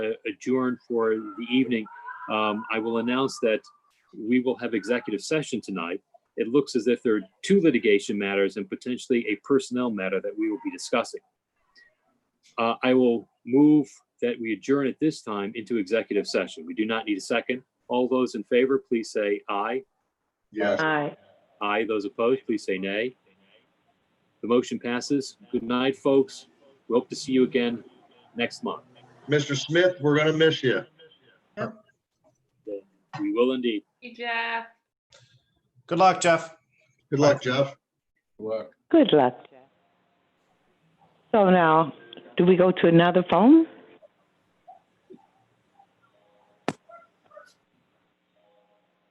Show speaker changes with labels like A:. A: adjourn for the evening, um, I will announce that we will have executive session tonight. It looks as if there are two litigation matters and potentially a personnel matter that we will be discussing. Uh, I will move that we adjourn at this time into executive session. We do not need a second. All those in favor, please say aye.
B: Yes,
C: Aye.
A: Aye. Those opposed, please say nay. The motion passes. Good night, folks. We hope to see you again next month.
B: Mr. Smith, we're gonna miss you.
A: We will indeed.
D: Hey, Jeff.
E: Good luck, Jeff.
B: Good luck, Jeff.
C: Good luck. So now, do we go to another phone?